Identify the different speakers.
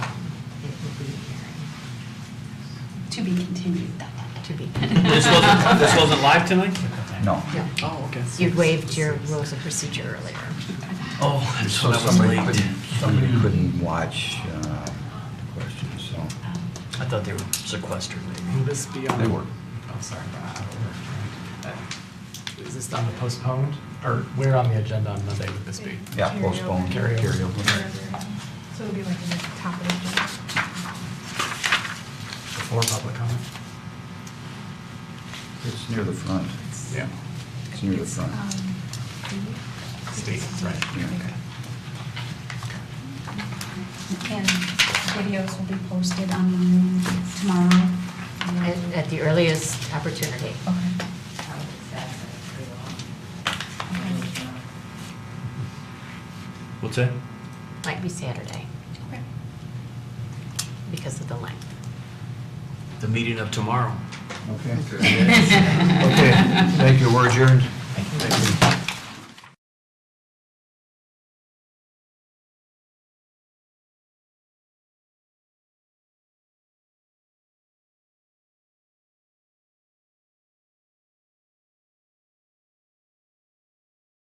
Speaker 1: To be continued. dot, dot, dot.
Speaker 2: to be.
Speaker 3: This wasn't, this wasn't live tonight?
Speaker 4: No.
Speaker 2: Yeah.
Speaker 3: Oh, okay.
Speaker 2: You'd waived your rules of procedure earlier.
Speaker 3: Oh, and
Speaker 4: So
Speaker 3: so that was
Speaker 4: somebody
Speaker 3: late. Mm.
Speaker 4: couldn't, somebody couldn't watch uh, the questions, so
Speaker 3: I thought they were sequestered.
Speaker 5: Will this be on?
Speaker 4: they were.
Speaker 5: Oh, sorry, Brian, I don't work. Uh, Is this on the postponed, or where on the agenda on Monday would this be?
Speaker 4: Yeah, postpone,
Speaker 5: Carryover.
Speaker 4: carryover.
Speaker 6: So it'll be like the top of the
Speaker 5: Before public comment?
Speaker 4: It's near the front.
Speaker 5: Yeah.
Speaker 4: It's near the front.
Speaker 5: State, right.
Speaker 4: Yeah.
Speaker 1: And videos will be posted online tomorrow.
Speaker 2: At- At the earliest opportunity.
Speaker 1: Okay.
Speaker 3: What's that?
Speaker 2: Might be Saturday
Speaker 1: Okay.
Speaker 2: because of the length.
Speaker 3: The meeting of tomorrow.
Speaker 4: Okay. Okay, thank you, we're adjourned. Thank you.